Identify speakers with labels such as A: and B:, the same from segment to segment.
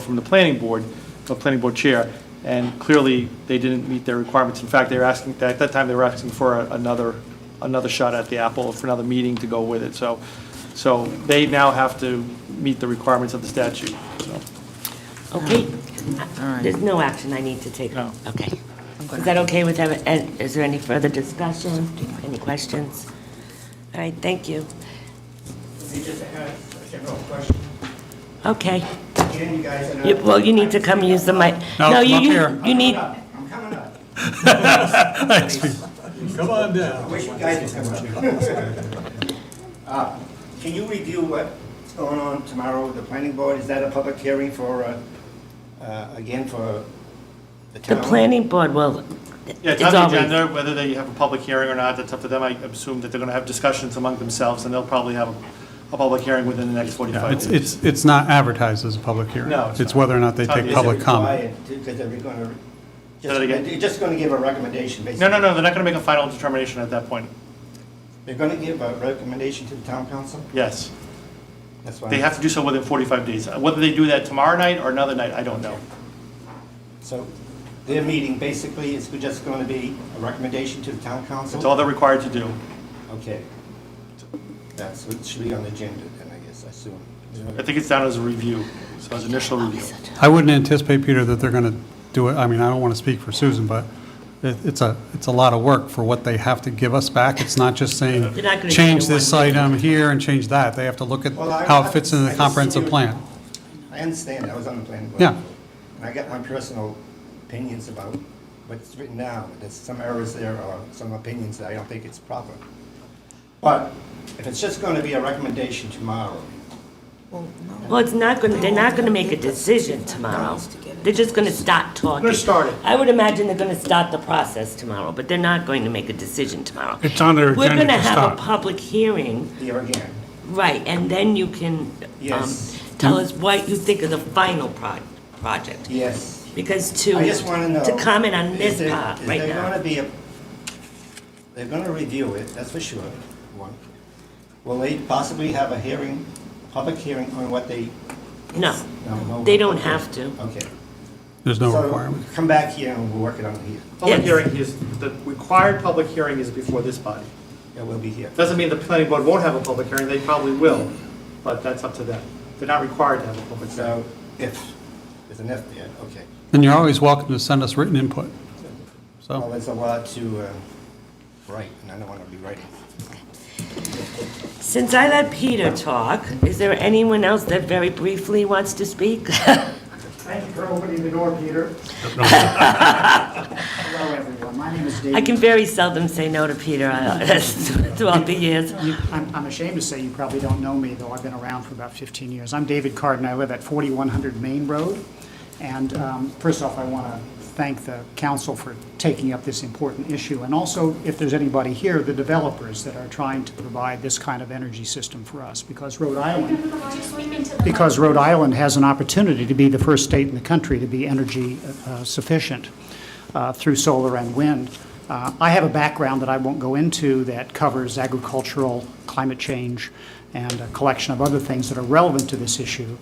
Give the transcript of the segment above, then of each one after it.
A: from the planning board, the planning board chair, and clearly, they didn't meet their requirements. In fact, they were asking, at that time, they were asking for a- another, another shot at the apple, for another meeting to go with it, so, so they now have to meet the requirements of the statute, so.
B: Okay,
C: All right.
B: there's no action I need to take.
A: No.
B: Okay. Is that okay with, every- and is there any further discussion? Any questions? All right, thank you.
D: You just had a general question.
B: Okay.
D: Again, you guys are
B: You-
D: not.
B: Well, you need to come use the mic.
C: No,
B: you-
C: come up
B: you-
C: here.
B: You need,
D: I'm coming up.
C: Come on down.
D: I wish you guys would come up. Uh, Can you review what's going on tomorrow with the planning board? Is that a public hearing for, uh, uh, again, for the
B: the
D: town?
B: planning board
A: Yeah,
B: will,
A: it's
B: it's
A: on the
B: always,
A: agenda, whether they have a public hearing or not, that's up to them. I assume that they're going to have discussions among themselves, and they'll probably have a, a public hearing within the next
E: Yeah,
A: 45
E: It's,
A: days.
E: it's, it's not advertised as a public hearing.
A: No, it's
E: It's
A: not.
E: whether or not they
A: It's not-
E: take
A: is it
E: public comment.
D: Because they're going
A: Say that again.
D: to, you're just going to give a recommendation, basically.
A: No, no, no, they're not going to make a final determination at that point.
D: They're going to give a recommendation to the town council?
A: Yes.
D: That's why.
A: They have to do so within 45 days. Whether they do that tomorrow night or another night, I don't know.
D: So their meeting basically is just going to be a recommendation to the town council?
A: It's all they're required to do.
D: Okay. That's, it should be on the agenda then, I guess, I assume.
A: I think it's down as a review, so as initial review.
E: I wouldn't anticipate, Peter, that they're going to do it, I mean, I don't want to speak for Susan, but it, it's a, it's a lot of work for what they have to give us back. It's not just saying,
B: They're not gonna do
E: change
B: it one
E: this item here and change that. They have to look at
D: Well, I-
E: how it fits
D: I
E: into the
D: just-
E: comprehensive plan.
D: I understand, I was on the planning board.
E: Yeah.
D: And I got my personal opinions about what's written down. There's some errors there or some opinions that I don't think it's proper. But if it's just going to be a recommendation tomorrow,
B: well, it's not going, to they're not going to make a decision tomorrow. They're just going to start talking.
D: They're starting.
B: I would imagine they're going to start the process tomorrow, but they're not going to make a decision tomorrow.
F: It's on their
B: We're
F: agenda
B: going to
F: to
B: have a
F: start.
B: public hearing,
D: here again,
B: right, and then you can um,
D: Yes.
B: tell us what you think of the final pro- project.
D: yes.
B: Because to,
D: I just want to know.
B: to comment on
D: is
B: this
D: there-
B: part right
D: Is there going
B: now.
D: to be a, they're going to review it, that's for sure, one. Will they possibly have a hearing, public hearing on what they?
B: No,
D: no, no,
B: they don't
D: okay.
B: have to.
D: Okay.
E: There's no
D: So,
E: requirement.
D: Come back here and we'll work it out here.
A: Public
B: Yes.
A: hearing is, the required public hearing is before this body.
D: Yeah, we'll be here.
A: Doesn't mean the planning board won't have a public hearing, they probably will, but that's up to them. They're not required to have a public hearing.
D: So if, there's an F there, okay.
E: And you're always welcome to send us written input.
D: Well,
E: So,
D: there's a lot to uh, write, and I don't want to be writing.
B: Since I let Peter talk, is there anyone else that very briefly wants to speak?
G: Thank you for opening the door, Peter. Hello, everyone. My name is David.
B: I can very seldom say no to Peter I- throughout the years.
G: You- I'm I'm ashamed to say you probably don't know me, though I've been around for about 15 years. I'm David Carden. I live at 4100 Main Road. And um, first off, I want to thank the council for taking up this important issue. And also, if there's anybody here, the developers that are trying to provide this kind of energy system for us, because Rhode Island because Rhode Island has an opportunity to be the first state in the country to be energy uh, sufficient uh, through solar and wind. Uh, I have a background that I won't go into that covers agricultural, climate change, and a collection of other things that are relevant to this issue.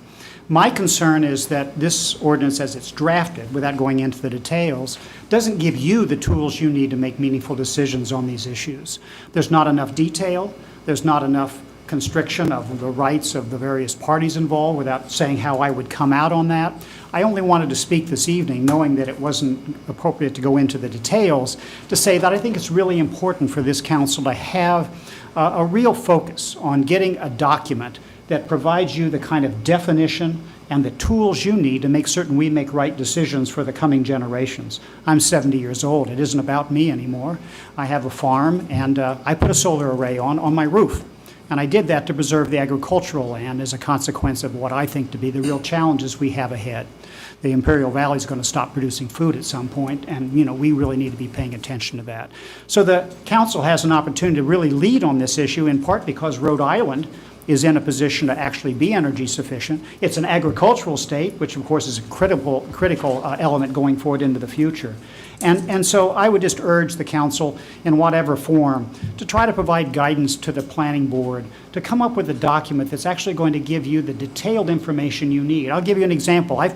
G: My concern is that this ordinance, as it's drafted, without going into the details, doesn't give you the tools you need to make meaningful decisions on these issues. There's not enough detail, there's not enough constriction of the rights of the various parties involved without saying how I would come out on that. I only wanted to speak this evening, knowing that it wasn't appropriate to go into the details, to say that I think it's really important for this council to have uh, a real focus on getting a document that provides you the kind of definition and the tools you need to make certain we make right decisions for the coming generations. I'm 70 years old. It isn't about me anymore. I have a farm, and uh, I put a solar array on, on my roof. And I did that to preserve the agricultural land as a consequence of what I think to be the real challenges we have ahead. The Imperial Valley is going to stop producing food at some point, and, you know, we really need to be paying attention to that. So the council has an opportunity to really lead on this issue, in part because Rhode Island is in a position to actually be energy sufficient. It's an agricultural state, which of course is a critical, critical uh, element going forward into the future. And, and so I would just urge the council, in whatever form, to try to provide guidance to the planning board, to come up with a document that's actually going to give you the detailed information you need. I'll give you an example. I've